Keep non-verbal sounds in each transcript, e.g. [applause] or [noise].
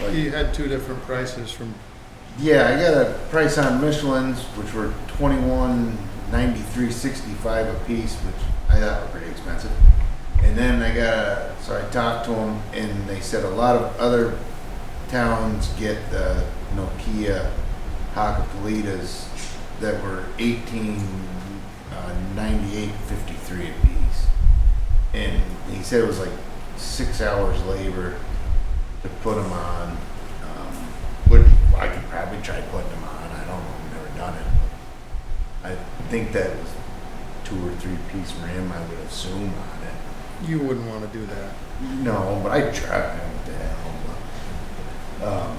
Like, He had two different prices from, yeah, I got a price on Michelin's, which were twenty-one ninety-three sixty-five a piece, which I thought were pretty expensive. And then I got a, so I talked to them, and they said a lot of other towns get the Nokia Hakkapelitas that were eighteen uh, ninety-eight fifty-three a piece. And he said it was like six hours labor to put them on. Um, would I could probably try putting them on. I don't know. I've never done it. I think that was two or three piece rim. I would assume on it. you wouldn't want to do that. No, but I tried. What the hell? but, Um,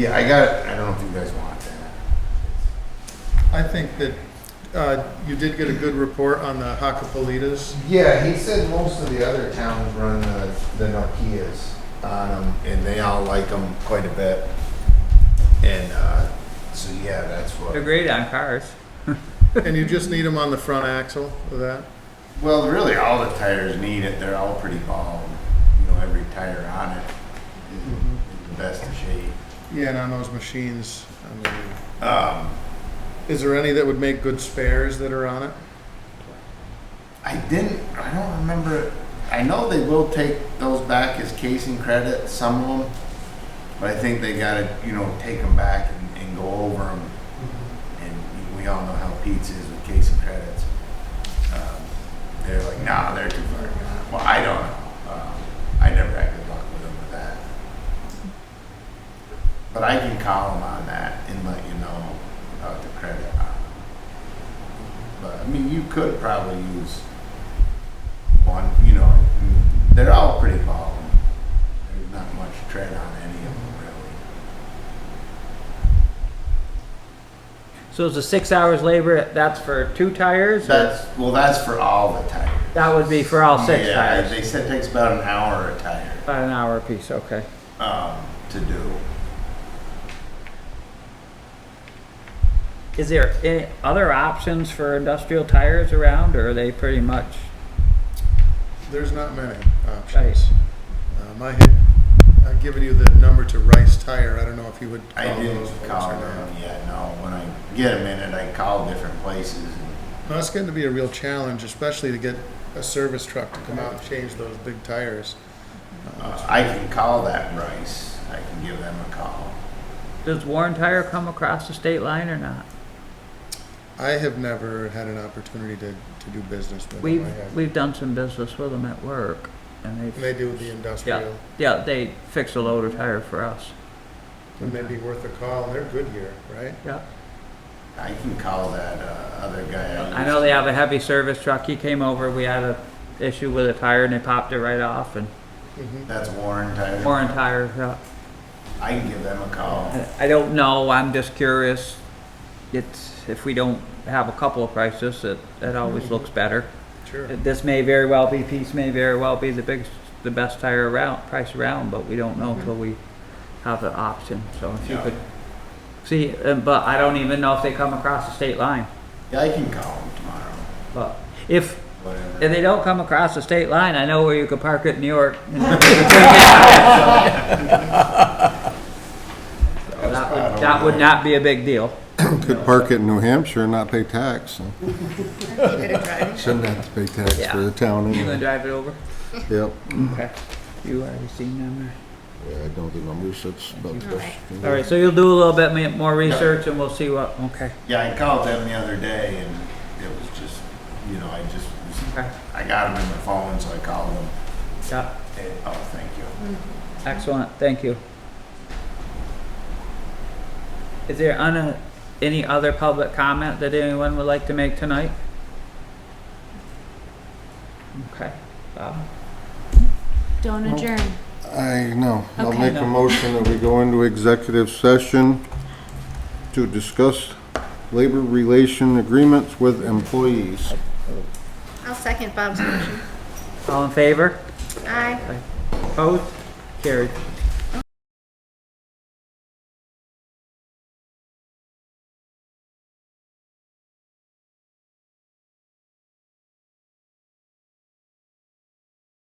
yeah, I got it. I don't know if you guys want that. I think that uh, you did get a good report on the Hacapolitas. Yeah, he said most of the other towns run the, the Nokias on them, and they all like them quite a bit. And uh, so, yeah, that's what. They're great on cars. And you just need them on the front axle of that. Well, really, all the tires need it. They're all pretty bald. You know, every tire on it is is the best of shape. Yeah, and on those machines, I mean, Um, is there any that would make good spares that are on it? I didn't. I don't remember. I know they will take those back as casing credit, some of them, but I think they got to you know take them back and, and go over them. And we all know how Pete's is with casing credits. Um, they're like, nah, they're too far. gone." Well, I don't know. Um, I never had good luck with them with that. But I can call them on that and let you know about the credit on them. But I mean, you could probably use one. You know, they're all pretty bald. There's not much tread on any of them really. So it's a six hours labor, that's for two tires? or- That's well, that's for all the tires. That would be for all six yeah, tires? they said it takes about an hour a tire About an hour apiece, okay. um, to do. Is there any other options for industrial tires around, or are they pretty much? There's not many options. Um, I had, I've given you the number to Rice Tire. I don't know if you would I call didn't Oh, those folks call or not. them yet. No, when I get a minute, I call different places. And, No, it's getting to be a real challenge, especially to get a service truck to come out and change those big tires. uh, I can call that Rice. I can give them a call. Does Warren Tire come across the state line or not? I have never had an opportunity to, to do business with them. We've, I have. we've done some business with them at work, and And they they've, do the industrial. yeah, they fix a load of tire for us. It may be worth a call. They're good here, right? Yeah. I can call that uh, other guy. I know they have a heavy service truck, he came over, we had a issue with a tire and they popped it right off, and Mhm. That's Warren Tire. Warren Tire, yeah. I can give them a [laughs] call. I don't know, I'm just curious. It's, if we don't have a couple of prices, it, it always looks better. Sure. This may very well be, piece may very well be the biggest, the best tire around, price around, but we don't know until we have the option, so if you Yeah. could. See, uh, but I don't even know if they come across the state line, Yeah, I can call them tomorrow. but if, Whatever. if they don't come across the state line, I know where you could park it in New York. So That would, that would not be a big deal. Could park it in New Hampshire and not pay tax. [laughs] so I'll give it a try. Shouldn't have to pay tax for Yeah. the town You gonna anyway. drive it over? Yep. Okay. You already seen them Yeah, I know the numbers, that's about the best. there. All right, so you'll do a little bit ma- more research and we'll see what, okay. Yeah, I called them the other day and it was just, you know, I just, was- Okay. I got them in my phone, so I called them. Yeah, And, oh, thank you. excellent, thank you. Is there on, any other public comment that anyone would like to make tonight? Okay, Bob? Don't adjourn. I know. I'll Okay. make a motion that we go into executive session to discuss labor relation agreements with employees. I'll second Bob's motion. All in favor? Aye. Opposed? Carried.